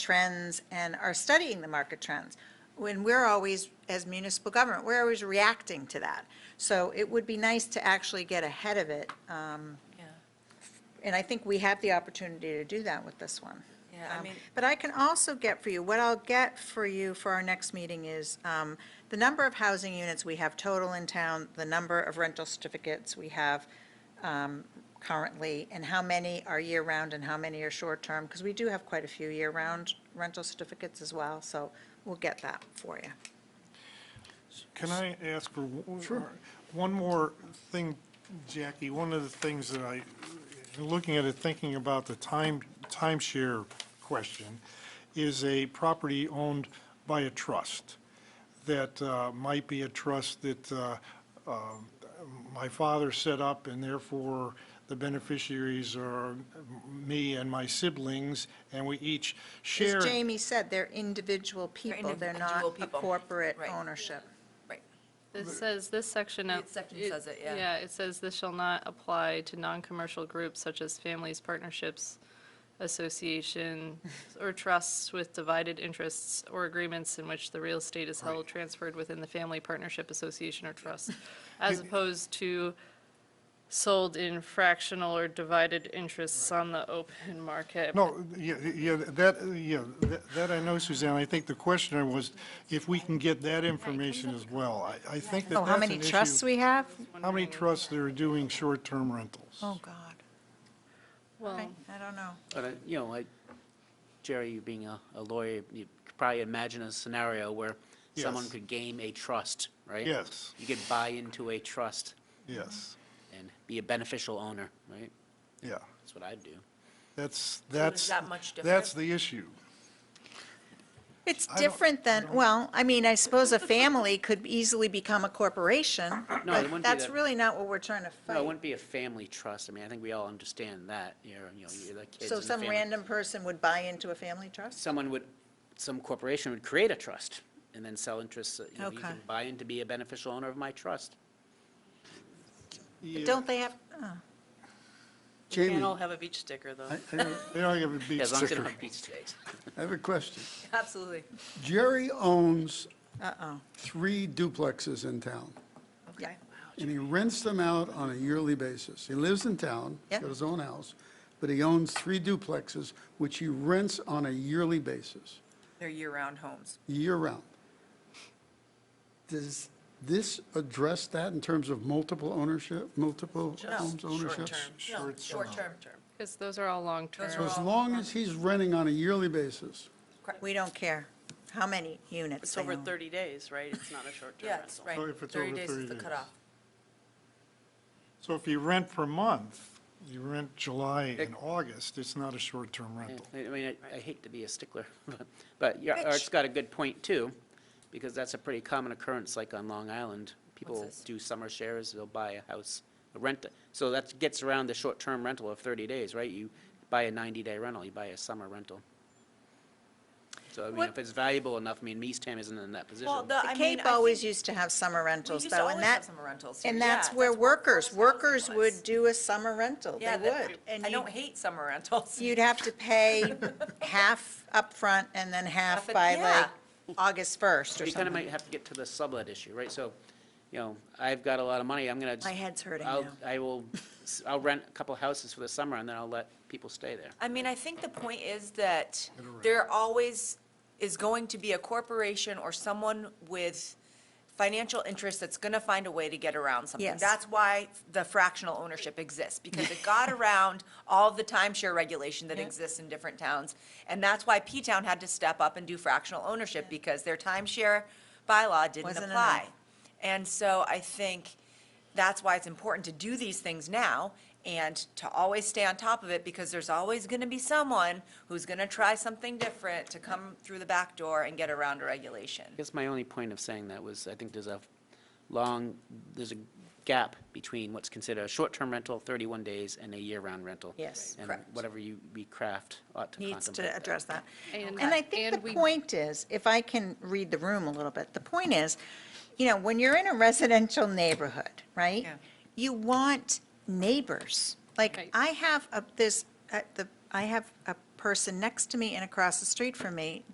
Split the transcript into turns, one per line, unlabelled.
trends and are studying the market trends. When we're always, as municipal government, we're always reacting to that. So it would be nice to actually get ahead of it. um,
Yeah.
And I think we have the opportunity to do that with this one.
Yeah, I
Um,
mean-
But I can also get for you, what I'll get for you for our next meeting is um, the number of housing units we have total in town, the number of rental certificates we have um, currently, and how many are year-round and how many are short-term, because we do have quite a few year-round rental certificates as well, so we'll get that for you.
Can I ask for w- uh, one more thing, Jackie? One of the things that I, looking at it, thinking about the time, timeshare question, is a property owned by a trust that uh, might be a trust that uh, um, my father set up, and therefore the beneficiaries are me and my siblings, and we each share.
As Jamie said, they're individual people, they're not
individual
a
people.
corporate
Right.
ownership.
Right.
This says, this section of.
This section says it, yeah.
Yeah, it says this shall not apply to non-commercial groups such as families, partnerships, association, or trusts with divided interests or agreements in which the real estate is held, transferred within the family, partnership, association, or trust, as opposed to sold in fractional or divided interests on the open market.
No, yeah, yeah, that, yeah, that- that I know, Suzanne. I think the questioner was if we can get that information as well. I, I think that
Oh, how
that's
many
an
trusts
issue.
we have?
Oh,
How many trusts that are doing short-term rentals?
Oh, God.
Well,
Okay, I don't know.
But, uh, you know, like, Jerry, you being a a lawyer, you could probably imagine a scenario where someone
Yes.
could game a trust, right?
Yes,
You could buy into a trust
yes,
and be a beneficial owner, right?
yeah.
That's what I'd do.
That's,
is
that's.
that much
That's
different?
the issue.
It's
I don't-
different than, well, I mean, I suppose a family could easily become a corporation,
wouldn't
but
be
that's
that-
really not what we're trying to
No, it
fight.
wouldn't be a family trust. I mean, I think we all understand that, you're, you know, you're the kids
So
in the
some
family.
random person would buy into a family trust?
Someone would, some corporation would create a trust and then sell interests, uh, you know, you
Okay.
can buy in to be a beneficial owner of my trust.
Yeah,
Don't they have,
We can't
Jamie,
all have a beach sticker, though.
I, I have-
They don't have a beach
As long as they
sticker.
don't have beach days.
I have a question.
Absolutely.
Jerry owns
uh-oh,
three duplexes in town,
Oh, Okay.
and he rents them out on a yearly basis. He lives in town,
Yeah.
got his own house, but he owns three duplexes, which he rents on a yearly basis,
They're year-round homes.
year-round. Does this address that in terms of multiple ownership, multiple homes ownership?
Short-term. Short-term.
because those are all long-term.
So as long as he's renting on a yearly basis,
we don't care how many units
It's
they
over
own.
30 days, right? It's not a short-term
Yeah, it's
rental.
right.
Oh, if it's
30
over
days
30
is the
days.
cutoff.
So if you rent per month, you rent July and August, it's not a short-term
Yeah,
rental.
I I mean, I- I hate to be a stickler, but- but yeah, Art's got a good point, too, because that's a pretty common occurrence, like on Long Island. People
this?
do summer shares, they'll buy a house, rent, it. so that gets around the short-term rental of 30 days, right? You buy a 90-day rental, you buy a summer rental. So, I mean,
What-
if it's valuable enough, I mean, East Ham isn't in that
Well,
position.
the, I
The
mean,
Cape
I
always
think
used to have summer
we
rentals,
used to
though, and
always have
that,
summer rentals.
and
Yeah,
that's where
what
workers,
workforce housing
workers
was.
would do a summer rental, they
Yeah, that-
would. And
I
you'd
don't hate summer rentals.
You'd have to pay half upfront and then half
Half at-
by
yeah.
like August 1st or
You kind of
something.
might have to get to the sublet issue, right? So, you know, I've got a lot of money, I'm going to.
My head's hurting
I'll-
now.
I will, s- I'll rent a couple houses for the summer, and then I'll let people stay there.
I mean, I think the point is that there always is going to be a corporation or someone with financial interest that's going to find a way to get around something.
Yes.
That's why the fractional ownership exists, because it got around all of the timeshare regulation that exists in different towns. And that's why P-Town had to step up and do fractional ownership, because their timeshare bylaw didn't
Wasn't
apply.
enough.
And so I think that's why it's important to do these things now and to always stay on top of it because there's always going to be someone who's going to try something different to come through the back door and get around a regulation.
I guess my only point of saying that was, I think there's a long, there's a gap between what's considered a short-term rental, 31 days, and a year-round rental.
Yes.
And
Correct.
whatever you, we craft ought to
needs
contemplate
to
that.
address that.
And-
And I think
and
the
we-
point is, if I can read the room a little bit, the point is, you know, when you're in a residential neighborhood, right?
Yeah.
You want neighbors. Like,
Right.
I have a- this, at the I have a person next to me and across the street from me